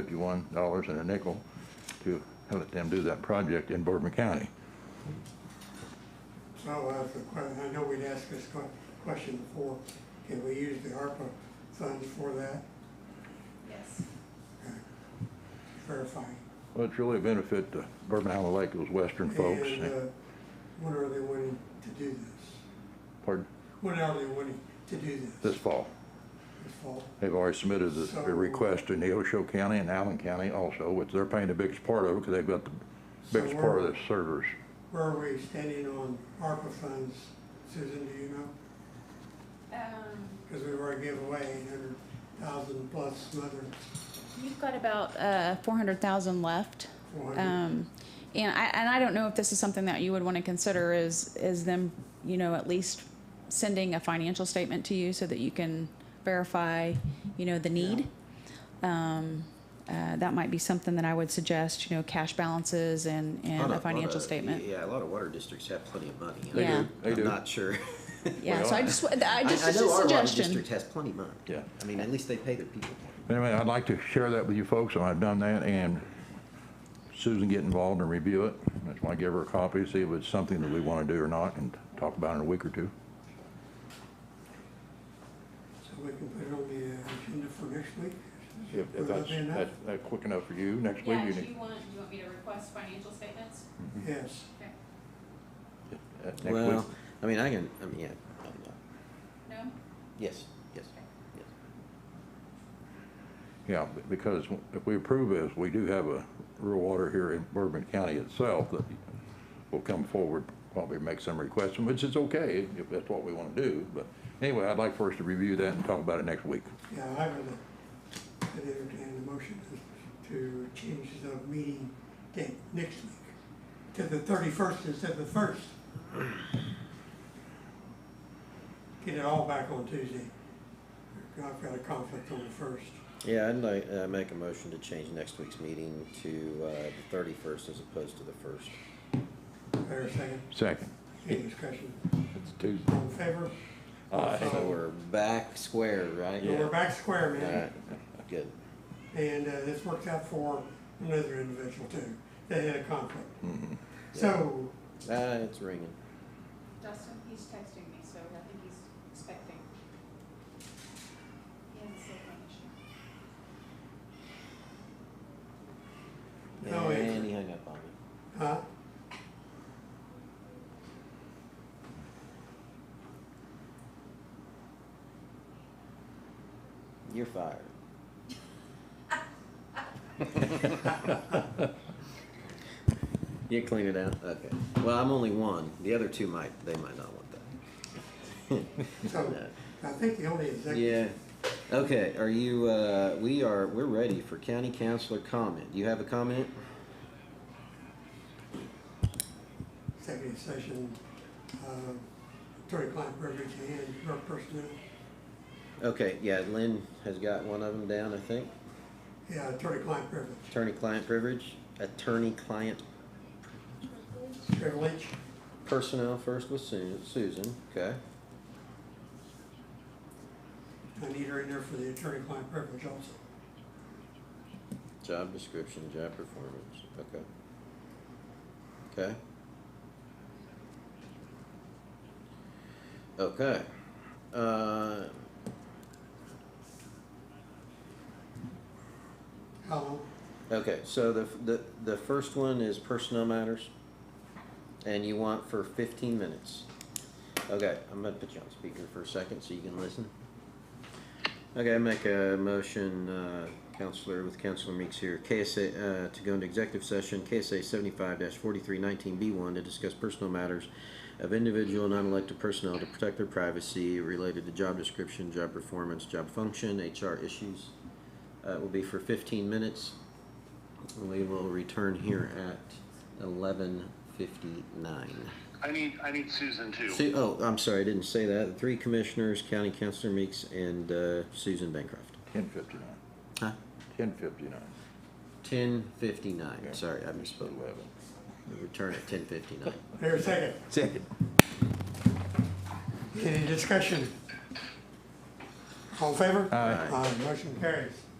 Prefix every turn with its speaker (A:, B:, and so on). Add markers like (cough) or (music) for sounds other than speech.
A: fifty-one dollars and a nickel to let them do that project in Bourbon County.
B: Oh, Well, we'll ask the question, I know we'd asked this que- question before, can we use the ARPA funds for that,
C: Yes.
B: verifying?
A: Well, it's really a benefit to Bourbon Island Lake, those western folks.
B: And, uh, when are they wanting to do this?
A: Pardon?
B: When are they wanting to do this?
A: This fall.
B: This fall?
A: They've already submitted a- a request to Neosho County and Allen County also, which they're paying the biggest part of it because they've got the biggest
B: So
A: part of
B: we're-
A: the servers.
B: Where are we standing on ARPA funds, Susan, do you know?
C: Um,
B: Because we've already given away eight hundred thousand plus some other
C: You've got about uh, 400,000 left.
B: four hundred.
C: Um, And I, and I don't know if this is something that you would want to consider is, is them, you know, at least sending a financial statement to you so that you can verify, you know, the need. Um, uh, That might be something that I would suggest, you know, cash balances and,
D: Lot
C: and a
D: of- lot
C: financial
D: of-
C: statement.
D: Yeah, a lot of water districts have plenty of money.
C: They do,
A: they do.
D: I'm not
A: (laughs)
D: sure.
C: Yeah, so I
A: Well,
C: just, w- I just,
D: I
C: just
D: know
C: a
D: our water
C: suggestion.
D: district has plenty of money.
A: Yeah.
D: I mean, at least they pay their people.
A: Anyway, I'd like to share that with you folks, and I've done that, and Susan get involved and review it. That's why I give her a copy, see if it's something that we want to do or not, and talk about it in a week or two.
B: So we can put it on the uh, agenda for next week?
A: If
B: Would
A: if
B: that
A: that's,
B: be enough?
A: that's, that's quick enough for you, next week
E: Yeah,
A: you
E: do
A: need,
E: you want, do you want me to request financial statements?
A: Mm-hmm.
B: Yes.
E: Okay.
A: uh, next week.
D: Well, I mean, I can, I mean, yeah, um, yeah.
E: No?
D: yes, yes, yes.
A: Yeah, b- because if we approve this, we do have a rural water here in Bourbon County itself that will come forward, probably make some requests, which is okay if that's what we want to do. But anyway, I'd like for us to review that and talk about it next week.
B: Yeah, I would, uh, I'd entertain the motion to change the meeting date next week to the thirty-first instead of the first. Get it all back on Tuesday. I've got a conflict on the first.
D: Yeah, I'd like, uh, make a motion to change next week's meeting to, uh, the thirty-first as opposed to the first.
B: Fair second,
A: Second.
B: any discussion?
A: It's Tuesday.
B: All in favor?
A: Aye.
D: So
B: So
D: Uh, we're back square, right?
B: we're back square,
D: All
B: man.
D: right, good.
B: And uh, this worked out for another individual too. They had a conflict.
D: Mm-hmm.
B: So,
D: Ah, it's ringing.
E: Justin, he's texting me, so I think he's expecting. He has a cell phone issue.
B: No, it's-
D: And he hung up on me.
B: huh?
D: You're fired. (laughs) You clean it out? Okay. Well, I'm only one. The other two might, they might not want
B: So
D: (laughs) that.
B: I think the only
D: No.
B: executive
D: Yeah. Okay, are you, uh, we are, we're ready for county councilor comment. Do you have a comment?
B: executive session, uh, attorney-client privilege and drug personnel.
D: Okay, yeah, Lynn has got one of them down, I think.
B: Yeah, attorney-client privilege.
D: Attorney-client privilege, attorney-client
B: Privilege,
D: personnel first with Su- Susan, okay?
B: I need her in there for the attorney-client privilege also.
D: Job description, job performance, okay. Okay. Okay, uh,
B: How long?
D: okay, so the, the, the first one is personnel matters, and you want for fifteen minutes. Okay, I'm gonna put you on speaker for a second so you can listen. Okay, I make a motion, uh, Counselor, with Counselor Meeks here, KSA, uh, to go into executive session, KSA seventy-five forty-three nineteen B one, to discuss personal matters of individual non-elected personnel to protect their privacy related to job description, job performance, job function, HR issues. Uh, it will be for fifteen minutes. We will return here at eleven fifty-nine.
F: I need I need Susan too.
D: Su- oh, I'm sorry, I didn't say that. The three commissioners, County Councilor Meeks, and uh, Susan Bancroft.
A: Ten fifty-nine.
D: Huh?
A: Ten fifty-nine.
D: Ten fifty-nine.
A: Yeah.
D: Sorry, I misspoke.
A: Eleven.
D: We Return at ten fifty-nine.
B: Here, second.
D: Second.
B: Any discussion? All in favor?
A: Aye.
B: Aye, motion carries.